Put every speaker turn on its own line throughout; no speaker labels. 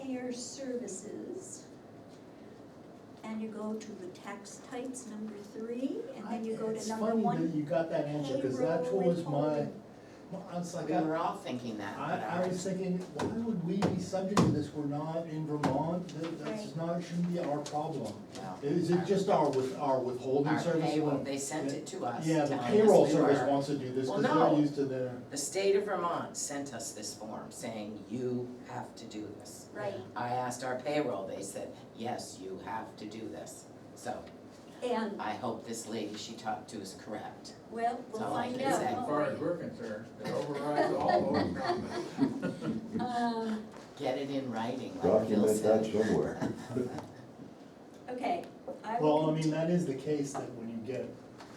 other services. And you go to the tax types, number three, and then you go to number
It's funny
one.
that you got that answer, cause that
payroll
was my,
withholding.
my- I was like,
We
I,
were all thinking that, but
I was
ours,
thinking, why would we be subject to this, we're not in Vermont, that, that's
Right.
not, shouldn't be our problem.
no.
Is it just our with, our withholding
Our
service?
payroll,
one?
they sent it to us.
Yeah, the
telling us
payroll
we
service
were-
wants to do this,
Well,
cause they're
no.
used to their,
The state of Vermont sent us this form saying, you have to do this.
Right,
I asked our payroll, they said, yes, you have to do this. So
and,
I hope this lady she talked to is correct.
well, we'll
That's all I
find
can
out.
say.
As
won't
far
we?
as we're concerned, it overrides all those comments.
Um,
Get it in writing, like Bill
Document that
said.
somewhere.
Okay, I
well, I
will,
mean, that is the case that when you get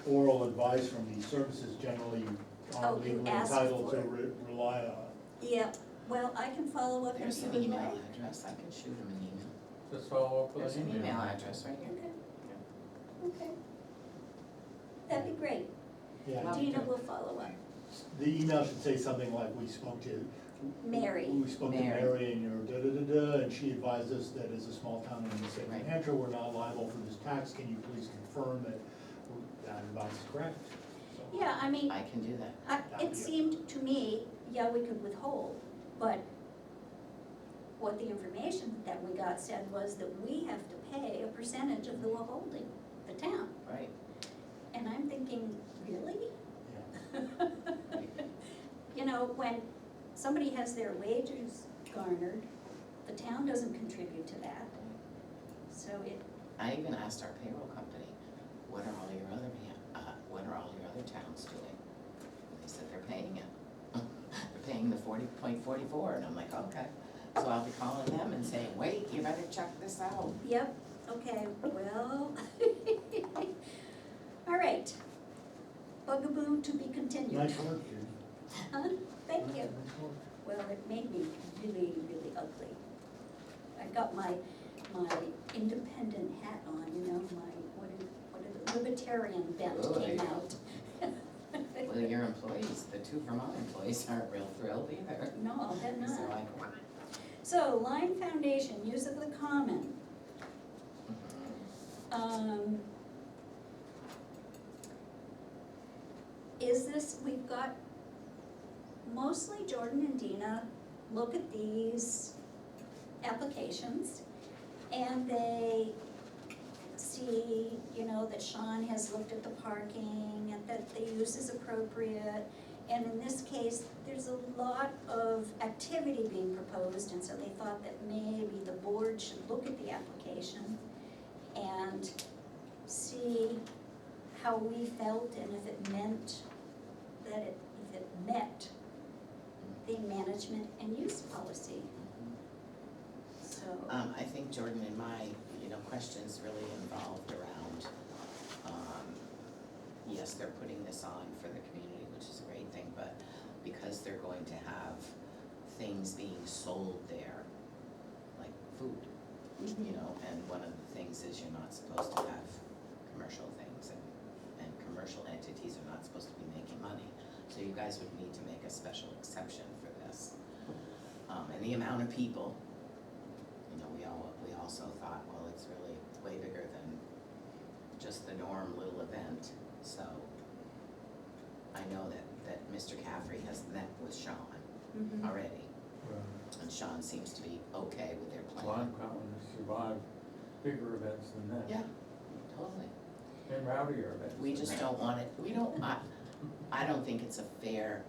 oral advice from these services, generally you are
Oh, you
legally
ask
entitled to
for it.
re- rely on.
yeah, well, I can follow up
There's
if you
an
would like.
email address, I can shoot him an email.
Just follow up
There's
with
an
an
email
email.
address right here.
Okay, okay. That'd be great.
Yeah,
Well,
Dina will follow up.
the email should say something like, we spoke to
Mary.
We spoke to
Mary.
Mary and your da-da-da-da, and she advised us that as a small town in the state of New
Right.
Hampshire, we're not liable for this tax, can you please confirm that that advice is correct? So,
Yeah, I mean,
I can do that.
I, it seemed to me, yeah, we could withhold, but what the information that we got said was that we have to pay a percentage of the withholding, the town.
Right.
And I'm thinking, really?
yeah.
You know, when somebody has their wages garnered, the town doesn't contribute to that. So it,
I even asked our payroll company, what are all your other, pa- uh, what are all your other towns doing? And they said they're paying it. They're paying the forty point forty-four, and I'm like, okay. So I'll be calling them and saying, wait, you better check this out.
yep, okay, well. All right. Bugaboo to be continued.
Nice work, Judy.
Huh? Uh-huh, Thank you.
Nice work.
Well, it made me really, really ugly. I got my, my independent hat on, you know, my, what is, what is, it, libertarian bent
Oh,
came
yeah.
out.
Well, your employees, the two Vermont employees aren't real thrilled either.
No, I'll bet
So
not.
I,
So Lime Foundation, use of the common.
"Mm-hmm."
Um, Is this, we've got mostly Jordan and Dina look at these applications and they see, you know, that Sean has looked at the parking and that the use is appropriate. And in this case, there's a lot of activity being proposed, and so they thought that maybe the board should look at the application and see how we felt and if it meant that it, if it met the management and use policy, so.
Um, I think Jordan and my, you know, questions really involved around, um, yes, they're putting this on for the community, which is a great thing, but because they're going to have things being sold there, like food, you know, and one of the things is you're not supposed to have commercial things and, and commercial entities are not supposed to be making money. So you guys would need to make a special exception for this. Um, and the amount of people, you know, we all, we also thought, well, it's really way bigger than just the norm little event, so. I know that, that Mr. Caffrey has met with Sean
Mhm.
already,
Right.
and Sean seems to be okay with their plan.
Lime Common has survived bigger events than that.
Yeah, totally.
And rowdier events.
We
than
just
that.
don't want it, we don't, I, I don't think it's a fair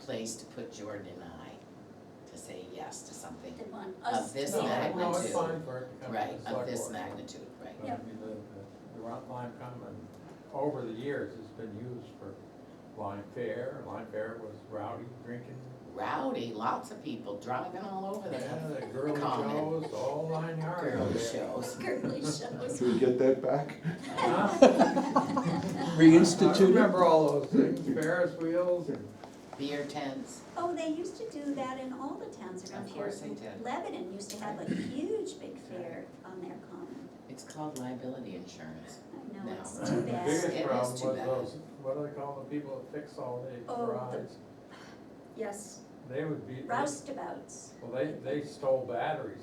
place to put Jordan and I to say yes to something
They want us
Of this
to
No,
be
matter.
No, it's
magnitude,
fine for it to come
Right,
to
of
the select
this
board.
magnitude, right?
But I mean, the, the- the Rock Lime Common, over the years, has been used for Lime Fair. Lime Fair was rowdy, drinking,
Rowdy, lots of people driving all over
yeah,
the
the girly
Common.
shows, all nine yards.
girl
over there.
shows.
girly shows.
Should we get that back?
Huh? I
Reinstituted?
remember all those things, Ferris wheels and
Beer tents,
Oh, they used to do that in all the towns around
Of
here.
course they did.
Lebanon used to have a huge big fair on their common.
it's called liability insurance.
I know,
No.
it's
The
too bad.
Bigger- It
biggest
is
problem was
too bad.
those, what do they call the people that fix all the
Oh, the-
garages?
Yes,
They would be, well,
roustabouts.
they, they stole batteries